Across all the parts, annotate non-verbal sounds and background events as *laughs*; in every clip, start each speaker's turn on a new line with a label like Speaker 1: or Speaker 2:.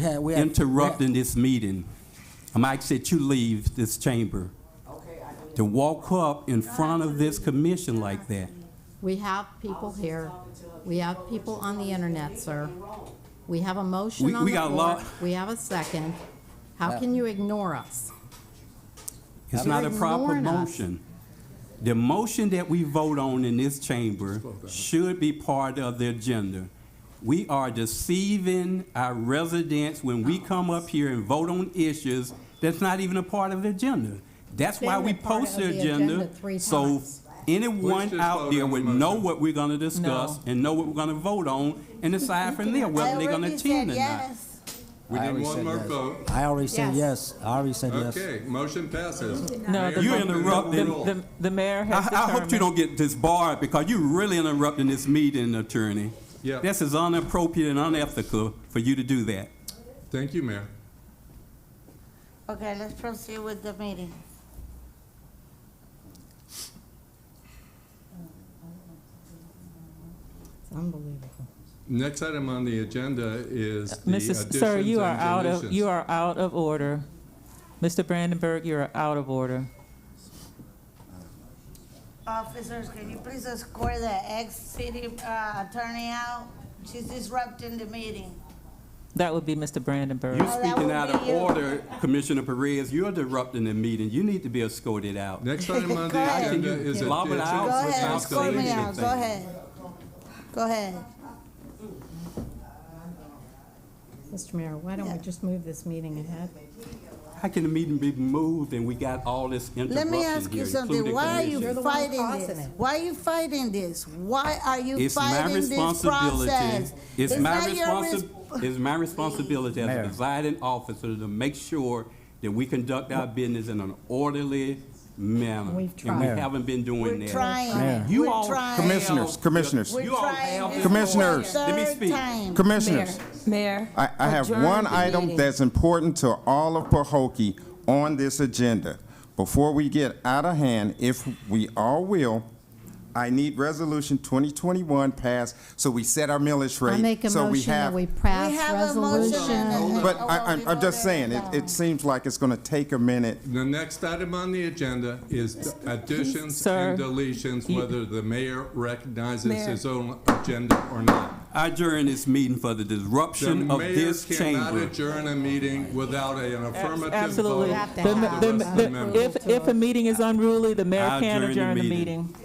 Speaker 1: Yeah, we have-
Speaker 2: interrupting this meeting. Mike said you leave this chamber. To walk up in front of this commission like that.
Speaker 3: We have people here. We have people on the internet, sir. We have a
Speaker 2: We-
Speaker 3: motion on
Speaker 2: we
Speaker 3: the
Speaker 2: got a
Speaker 3: floor.
Speaker 2: lot-
Speaker 3: We have a second. How can you ignore us?
Speaker 2: It's not a proper
Speaker 3: Ignoring us.
Speaker 2: motion. The motion that we vote on in this chamber should be part of the agenda. We are deceiving our residents when we come up here and vote on issues that's not even a part of the agenda. That's why
Speaker 3: Been
Speaker 2: we
Speaker 3: a part
Speaker 2: post
Speaker 3: of
Speaker 2: the
Speaker 3: the
Speaker 2: agenda,
Speaker 3: agenda three
Speaker 2: so
Speaker 3: times.
Speaker 4: Let's
Speaker 2: anyone
Speaker 4: just vote
Speaker 2: out
Speaker 4: on
Speaker 2: there
Speaker 4: the
Speaker 2: would
Speaker 4: motion.
Speaker 2: know what we're gonna discuss
Speaker 5: No.
Speaker 2: and know what we're gonna vote on and decide from there whether they're gonna attend or not.
Speaker 4: We
Speaker 1: I
Speaker 4: need
Speaker 1: already
Speaker 4: one
Speaker 1: said
Speaker 4: more
Speaker 1: yes.
Speaker 4: vote.
Speaker 1: I already said yes. I already said yes.
Speaker 4: Okay, motion passes.
Speaker 5: No, the-
Speaker 2: You
Speaker 5: the-
Speaker 2: interrupt
Speaker 5: The,
Speaker 2: them.
Speaker 5: the, the mayor has
Speaker 2: I, I hope you don't
Speaker 5: determined-
Speaker 2: get disbarred because you're really interrupting this meeting, attorney.
Speaker 4: Yeah.
Speaker 2: This is inappropriate and unethical for you to do that.
Speaker 4: Thank you, Mayor.
Speaker 6: Okay, let's proceed with the meeting.
Speaker 3: It's unbelievable.
Speaker 4: Next item on the agenda is the
Speaker 5: Mrs. Sir,
Speaker 4: additions
Speaker 5: you are
Speaker 4: and
Speaker 5: out of, you
Speaker 4: deletions.
Speaker 5: are out of order. Mr. Brandenburg, you are out of order.
Speaker 6: Officers, can you please escort the ex-city uh, attorney out? She's disrupting the meeting.
Speaker 5: That would be Mr. Brandenburg.
Speaker 2: You're
Speaker 6: that
Speaker 2: speaking
Speaker 6: would
Speaker 2: out
Speaker 6: be
Speaker 2: of
Speaker 6: you.
Speaker 2: order, Commissioner Perez. You're disrupting the meeting. You need to be escorted out.
Speaker 4: Next
Speaker 5: *laughs*
Speaker 4: item on the
Speaker 6: ahead.
Speaker 4: agenda is
Speaker 2: Lob it
Speaker 4: additions
Speaker 2: out.
Speaker 6: Go ahead,
Speaker 2: Without
Speaker 4: and
Speaker 6: escort me
Speaker 2: deletion
Speaker 6: out,
Speaker 4: deletions.
Speaker 6: go ahead. Go ahead.
Speaker 3: Mr. Mayor, why don't we just move this meeting ahead?
Speaker 2: How can the meeting be moved and we got all this
Speaker 6: Let
Speaker 2: interruption
Speaker 6: me ask
Speaker 2: here,
Speaker 6: you something,
Speaker 2: including
Speaker 6: why are
Speaker 2: Commissioner?
Speaker 3: You're the
Speaker 6: you
Speaker 3: one
Speaker 6: fighting
Speaker 3: causing
Speaker 6: this?
Speaker 3: it.
Speaker 6: Why are you fighting this? Why are you
Speaker 2: It's my
Speaker 6: fighting this
Speaker 2: responsibility.
Speaker 6: process?
Speaker 2: It's my
Speaker 6: not your
Speaker 2: responsi,
Speaker 6: res-
Speaker 2: it's my responsibility as a
Speaker 1: Mayor.
Speaker 2: presiding officer to make sure that we conduct our business in an orderly manner.
Speaker 3: We've
Speaker 2: And
Speaker 3: Mayor.
Speaker 2: we haven't been doing
Speaker 6: We're
Speaker 2: that.
Speaker 6: trying,
Speaker 2: You
Speaker 6: we're
Speaker 2: all
Speaker 6: trying.
Speaker 7: Commissioners, commissioners,
Speaker 6: We're
Speaker 2: You all
Speaker 6: trying
Speaker 2: have
Speaker 6: this
Speaker 2: the
Speaker 7: Commissioners.
Speaker 6: for a
Speaker 2: Let me
Speaker 6: third
Speaker 2: speak.
Speaker 6: time.
Speaker 7: commissioners.
Speaker 8: Mayor.
Speaker 7: I, I have
Speaker 8: adjourn
Speaker 7: one
Speaker 8: the
Speaker 7: item
Speaker 8: meeting.
Speaker 7: that's important to all of Pahokee on this agenda. Before we get out of hand, if we all will, I need resolution 2021 passed so we set our millage rate.
Speaker 3: I make a
Speaker 7: so we
Speaker 3: motion that
Speaker 7: have-
Speaker 3: we pass
Speaker 6: We have a motion and
Speaker 3: resolution.
Speaker 6: a-
Speaker 7: But
Speaker 6: Oh,
Speaker 7: I,
Speaker 6: well, we
Speaker 7: I'm, I'm just
Speaker 6: voted
Speaker 7: saying, it,
Speaker 6: down.
Speaker 7: it seems like it's gonna take a minute.
Speaker 4: The next item on the agenda is the additions
Speaker 5: Sir.
Speaker 4: and deletions,
Speaker 5: You-
Speaker 4: whether the mayor recognizes
Speaker 8: Mayor.
Speaker 4: his own agenda or not.
Speaker 2: I adjourn this meeting for the
Speaker 4: The
Speaker 2: disruption of
Speaker 4: mayor
Speaker 2: this
Speaker 4: cannot
Speaker 2: chamber.
Speaker 4: adjourn a meeting without an affirmative vote.
Speaker 5: Absolutely.
Speaker 3: have to
Speaker 5: The-
Speaker 3: have
Speaker 5: the-
Speaker 4: the rest of the
Speaker 5: the-
Speaker 4: members.
Speaker 5: If, if a meeting is unruly, the mayor
Speaker 2: I'll adjourn
Speaker 5: can
Speaker 2: the
Speaker 5: adjourn the
Speaker 2: meeting.
Speaker 5: meeting.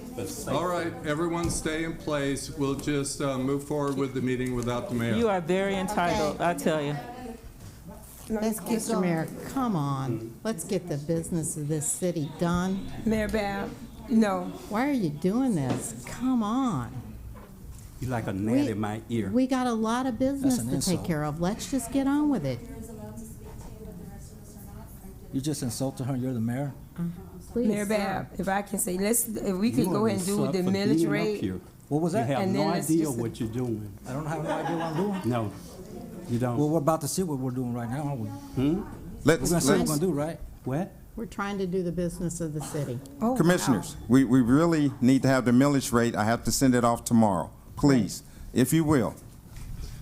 Speaker 4: All right, everyone stay in place. We'll just uh, move forward with the meeting without the
Speaker 5: You
Speaker 4: mayor.
Speaker 5: are very entitled, I tell you.
Speaker 6: Let's keep
Speaker 3: Mr. Mayor, come on. Let's get the business of this city done.
Speaker 8: Mayor Bab, no.
Speaker 3: Why are you doing this? Come on.
Speaker 2: You're like a gnat
Speaker 3: We-
Speaker 2: in my ear.
Speaker 3: We got a lot of business
Speaker 1: an
Speaker 3: to take
Speaker 1: insult.
Speaker 3: care of. Let's just get on with it,
Speaker 9: is allowed to speak to, but the rest of us are not.
Speaker 1: You just insulted her. You're the mayor.
Speaker 3: please.
Speaker 8: Mayor Bab, if I can say, let's, if we can
Speaker 2: You
Speaker 8: go
Speaker 2: are
Speaker 8: ahead and do
Speaker 2: slut
Speaker 8: the
Speaker 2: for
Speaker 8: millage
Speaker 2: being up
Speaker 8: rate.
Speaker 2: here.
Speaker 1: What was that?
Speaker 2: You have
Speaker 8: And then
Speaker 2: no
Speaker 8: it's
Speaker 2: idea
Speaker 8: just a-
Speaker 2: what you're doing.
Speaker 1: I don't have no idea what I'm doing.
Speaker 2: No,
Speaker 1: Well,
Speaker 2: you don't.
Speaker 1: we're about to see what we're doing right now, aren't we? We're
Speaker 7: Let's,
Speaker 1: gonna see what we're
Speaker 7: let's,
Speaker 1: gonna do, right?
Speaker 2: What?
Speaker 3: We're trying to do the business of the city.
Speaker 8: Oh, wow.
Speaker 7: commissioners, we, we really need to have the millage rate. I have to send it off tomorrow, please, if you will.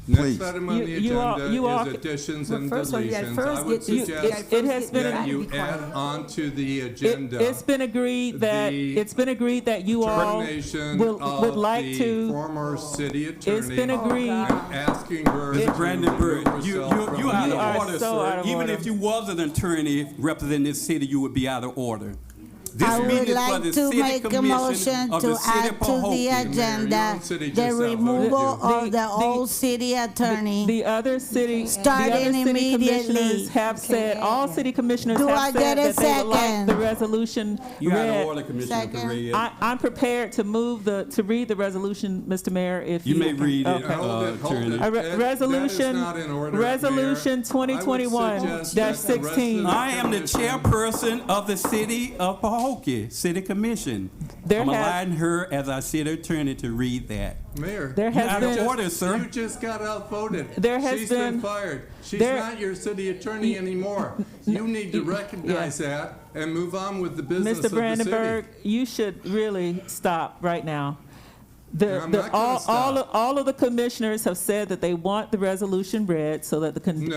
Speaker 4: Next
Speaker 7: please.
Speaker 4: item on
Speaker 5: You-
Speaker 4: the
Speaker 5: you all- you
Speaker 4: agenda
Speaker 5: all-
Speaker 4: is additions
Speaker 8: But
Speaker 4: and
Speaker 8: first one, you gotta
Speaker 4: deletions. I
Speaker 8: first
Speaker 4: would
Speaker 8: get- you-
Speaker 5: you
Speaker 4: suggest
Speaker 5: gotta It- it has been-
Speaker 4: that you add on to the
Speaker 5: It,
Speaker 4: agenda.
Speaker 5: it's been agreed that,
Speaker 4: The
Speaker 5: it's been agreed that you all
Speaker 4: termination
Speaker 5: will, would
Speaker 4: of
Speaker 5: like
Speaker 4: the
Speaker 5: to,
Speaker 4: Former city attorney.
Speaker 5: it's been agreed.
Speaker 4: and Asking her. to
Speaker 2: Mr. Brandenburg,
Speaker 4: remove
Speaker 2: you, you,
Speaker 4: herself from
Speaker 2: you
Speaker 4: the
Speaker 2: out
Speaker 5: You are
Speaker 2: of order,
Speaker 5: so out
Speaker 2: sir.
Speaker 5: of
Speaker 2: Even
Speaker 5: order.
Speaker 2: if you was an attorney representing this city, you would be out of order.
Speaker 6: I
Speaker 2: This
Speaker 6: would
Speaker 2: meeting is for
Speaker 6: like
Speaker 2: the
Speaker 6: to
Speaker 2: city
Speaker 6: make a
Speaker 2: commission
Speaker 6: motion
Speaker 2: of the
Speaker 6: to
Speaker 2: city of
Speaker 6: add to the
Speaker 2: Pahokee.
Speaker 4: Your
Speaker 6: agenda
Speaker 4: own city just
Speaker 6: the
Speaker 4: outvoted
Speaker 6: removal
Speaker 5: you.
Speaker 6: of
Speaker 5: The-
Speaker 6: the
Speaker 5: the-
Speaker 6: old city attorney.
Speaker 5: The other city, the other
Speaker 6: Starting
Speaker 5: city
Speaker 6: immediately.
Speaker 5: commissioners have said, all city commissioners
Speaker 6: Do I
Speaker 5: have said
Speaker 6: get a
Speaker 5: that they would like
Speaker 6: second?
Speaker 5: the resolution
Speaker 2: You out of
Speaker 5: read.
Speaker 2: order, Commissioner
Speaker 6: Second.
Speaker 2: Perez.
Speaker 5: I, I'm prepared to move the, to read the resolution, Mr. Mayor, if you.
Speaker 2: You may read it,
Speaker 5: Okay.
Speaker 4: Hold it,
Speaker 2: uh,
Speaker 4: hold it.
Speaker 2: attorney.
Speaker 5: A re-
Speaker 4: That- that is
Speaker 5: resolution-
Speaker 4: not in order, Mayor.
Speaker 5: resolution
Speaker 4: I would
Speaker 5: 2021-16.
Speaker 4: suggest that the rest of the
Speaker 2: I am the
Speaker 4: commission-
Speaker 2: chairperson of the city of Pahokee, city commission.
Speaker 5: There
Speaker 2: I'm
Speaker 5: has-
Speaker 2: allowing her as our city attorney to read that.
Speaker 4: Mayor.
Speaker 5: There has
Speaker 2: out
Speaker 5: been.
Speaker 2: of order, sir.
Speaker 4: You just got outvoted.
Speaker 5: There has
Speaker 4: She's been
Speaker 5: been-
Speaker 4: fired. She's
Speaker 5: there-
Speaker 4: not your city attorney anymore. You need to recognize that and move on with the business of the
Speaker 5: Mr.
Speaker 4: city.
Speaker 5: Brandenburg, you should really stop right now. The,
Speaker 4: I'm
Speaker 5: the,
Speaker 4: not gonna
Speaker 5: all, all,
Speaker 4: stop.
Speaker 5: of- all of the commissioners have said that they want the resolution read so that the con-